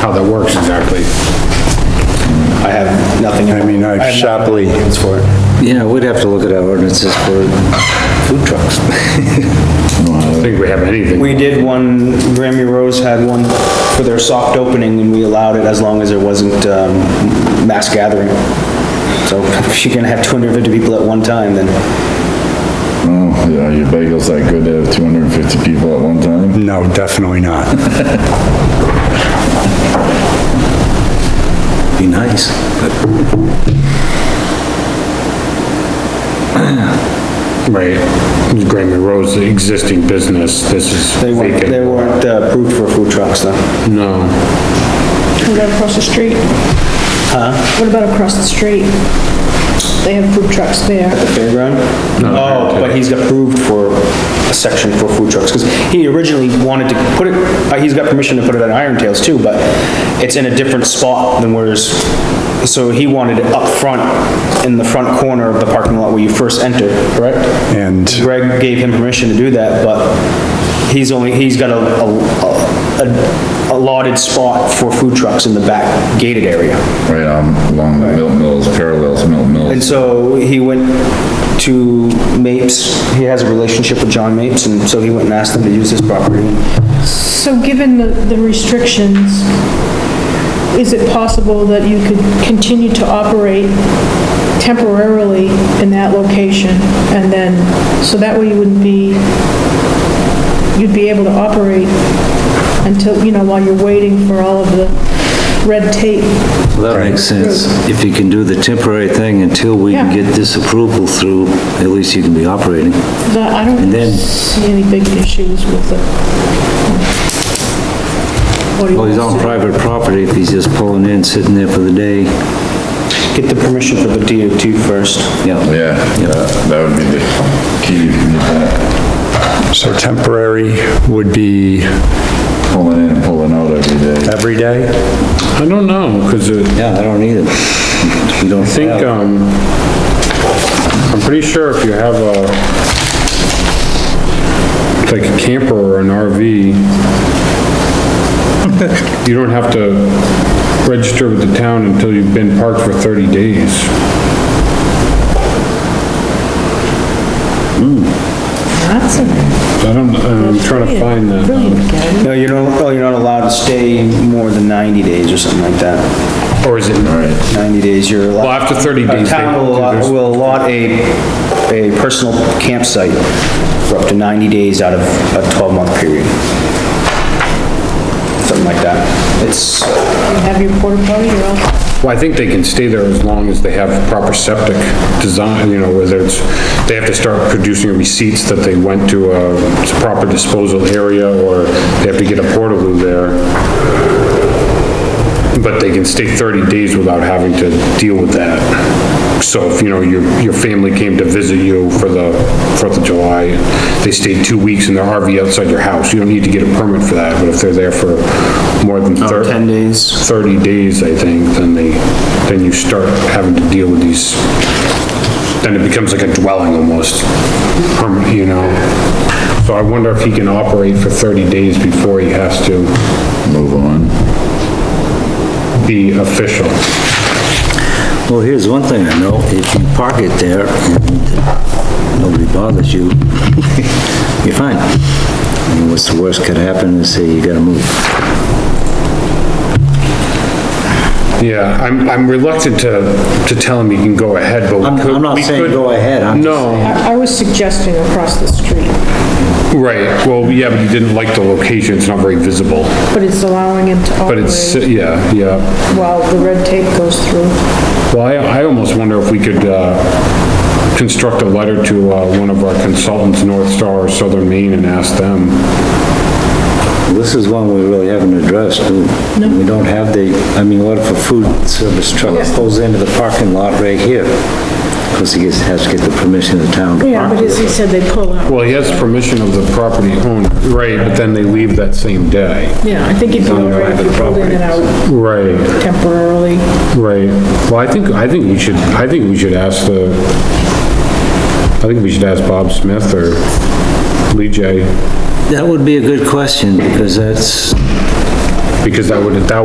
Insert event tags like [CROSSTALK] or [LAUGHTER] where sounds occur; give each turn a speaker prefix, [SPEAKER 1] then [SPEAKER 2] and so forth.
[SPEAKER 1] how that works exactly.
[SPEAKER 2] I have nothing.
[SPEAKER 3] I mean, I
[SPEAKER 2] have nothing
[SPEAKER 3] sharply-
[SPEAKER 2] for it.
[SPEAKER 4] Yeah, we'd have to look at our ordinances for food trucks.
[SPEAKER 1] I think we have anything.
[SPEAKER 2] We did one, Grammy Rose had one for their soft opening and we allowed it as long as there wasn't, um, mass gathering. So if you're gonna have two hundred and fifty people at one time, then
[SPEAKER 5] Oh, yeah, your bagel's that good to have 250 people at one time?
[SPEAKER 3] No, definitely not.
[SPEAKER 4] Be nice, but
[SPEAKER 1] [CLEARS THROAT] Right. Grammy Rose, the existing business, this is
[SPEAKER 2] they weren't, they
[SPEAKER 1] vacant.
[SPEAKER 2] weren't uh, approved for food trucks though.
[SPEAKER 1] No.
[SPEAKER 6] What about across the street? Huh? What about across the street? They have food trucks there.
[SPEAKER 2] Fairground? Oh, but he's approved for a section for food trucks, because he originally wanted to put it, uh, he's got permission to put it at Iron Tales too, but it's in a different spot than where's, so he wanted it up front, in the front corner of the parking lot where you first enter, correct?
[SPEAKER 3] And
[SPEAKER 2] Greg gave him permission to do that, but he's only, he's got a, a- a, a allotted spot for food trucks in the back gated area.
[SPEAKER 5] Right, um, along the Milk Mills, parallels Milk
[SPEAKER 2] And
[SPEAKER 5] Mills.
[SPEAKER 2] so he went to Mapes, he has a relationship with John Mapes, and so he went and asked them to use his property.
[SPEAKER 6] So given the the restrictions, is it possible that you could continue to operate temporarily in that location? And then, so that way you wouldn't be, you'd be able to operate until, you know, while you're waiting for all of the red tape.
[SPEAKER 4] that makes sense. If you can do the temporary thing until we can
[SPEAKER 6] Yeah.
[SPEAKER 4] get this approval through, at least you can be operating.
[SPEAKER 6] That, I
[SPEAKER 4] And
[SPEAKER 6] don't
[SPEAKER 4] then-
[SPEAKER 6] see any big issues with it. What do you
[SPEAKER 4] Well, he's on
[SPEAKER 6] want us
[SPEAKER 4] private property, if he's just pulling in, sitting there for the day,
[SPEAKER 2] Get the permission for the DOT first.
[SPEAKER 4] yeah.
[SPEAKER 5] Yeah, that that would be the key, if you need that,
[SPEAKER 3] so temporary would be
[SPEAKER 5] pulling in and pulling out every day.
[SPEAKER 3] every day?
[SPEAKER 1] I don't know, because I
[SPEAKER 4] Yeah, I don't either. We don't
[SPEAKER 1] think,
[SPEAKER 4] have-
[SPEAKER 1] um, I'm pretty sure if you have a, like a camper or an [LAUGHS] RV, you don't have to register with the town until you've been parked for 30 days.
[SPEAKER 6] to do? That's a
[SPEAKER 1] So I don't, I'm trying to find that. um,
[SPEAKER 6] brilliant guy.
[SPEAKER 2] No, you don't, oh, you're not allowed to stay more than 90 days or something like that.
[SPEAKER 1] Or is it,
[SPEAKER 2] 90 days, you're allowed.
[SPEAKER 1] well, after 30
[SPEAKER 2] A
[SPEAKER 1] days. they-
[SPEAKER 2] town will allot-
[SPEAKER 1] there's-
[SPEAKER 2] will allot a, a personal campsite for up to 90 days out of a 12-month period. Something like that. It's,
[SPEAKER 6] You have your porta potty, you're all
[SPEAKER 1] Well, I think they can stay there as long as they have proper septic design, you know, whether it's, they have to start producing receipts that they went to uh, a proper disposal area, or they have to get a portaloo there. But they can stay 30 days without having to deal with that. So if, you know, your, your family came to visit you for the Fourth of July, they stayed two weeks in their RV outside your house, you don't need to get a permit for that, but if they're there for more than 30...
[SPEAKER 2] 10 days.
[SPEAKER 1] 30 days, I think, then they, then you start having to deal with these, then it becomes like a dwelling almost, perm- you know? So I wonder if he can operate for 30 days before he has to
[SPEAKER 5] Move on.
[SPEAKER 1] be official.
[SPEAKER 4] Well, here's one thing I know, if you park it there and nobody bothers you, [LAUGHS] you're fine. I mean, what's the worst could happen is say you gotta move.
[SPEAKER 1] Yeah, I'm, I'm reluctant to, to tell him he can go ahead, but
[SPEAKER 4] I'm,
[SPEAKER 1] we could.
[SPEAKER 4] I'm not
[SPEAKER 1] we
[SPEAKER 4] saying
[SPEAKER 1] could-
[SPEAKER 4] go ahead, I'm just
[SPEAKER 1] No,
[SPEAKER 6] I I was suggesting across the street,
[SPEAKER 1] right, well, yeah, but he didn't like the location, it's not very visible,
[SPEAKER 6] but it's allowing him to
[SPEAKER 1] but it's,
[SPEAKER 6] operate
[SPEAKER 1] yeah, yeah.
[SPEAKER 6] while the red tape goes through.
[SPEAKER 1] Well, I, I almost wonder if we could, uh, construct a letter to, uh, one of our consultants, North Star or Southern Maine, and ask them.
[SPEAKER 4] This is one we really haven't addressed, do we? We don't have the, I mean, what if a food service truck pulls into the parking lot right here? Because he gets- has to get the permission of the town to
[SPEAKER 6] Yeah,
[SPEAKER 4] park.
[SPEAKER 6] but as he said, they pull out.
[SPEAKER 1] Well, he has permission of the property owner, right, but then they leave that same day.
[SPEAKER 6] Yeah, I think it'd be all
[SPEAKER 4] the
[SPEAKER 6] right if
[SPEAKER 4] private
[SPEAKER 6] you pulled in and out
[SPEAKER 1] Right,
[SPEAKER 6] temporarily.
[SPEAKER 1] right. Well, I think, I think we should, I think we should ask the, I think we should ask Bob Smith or Lee J,
[SPEAKER 4] That would be a good question, because that's,
[SPEAKER 1] because that would, that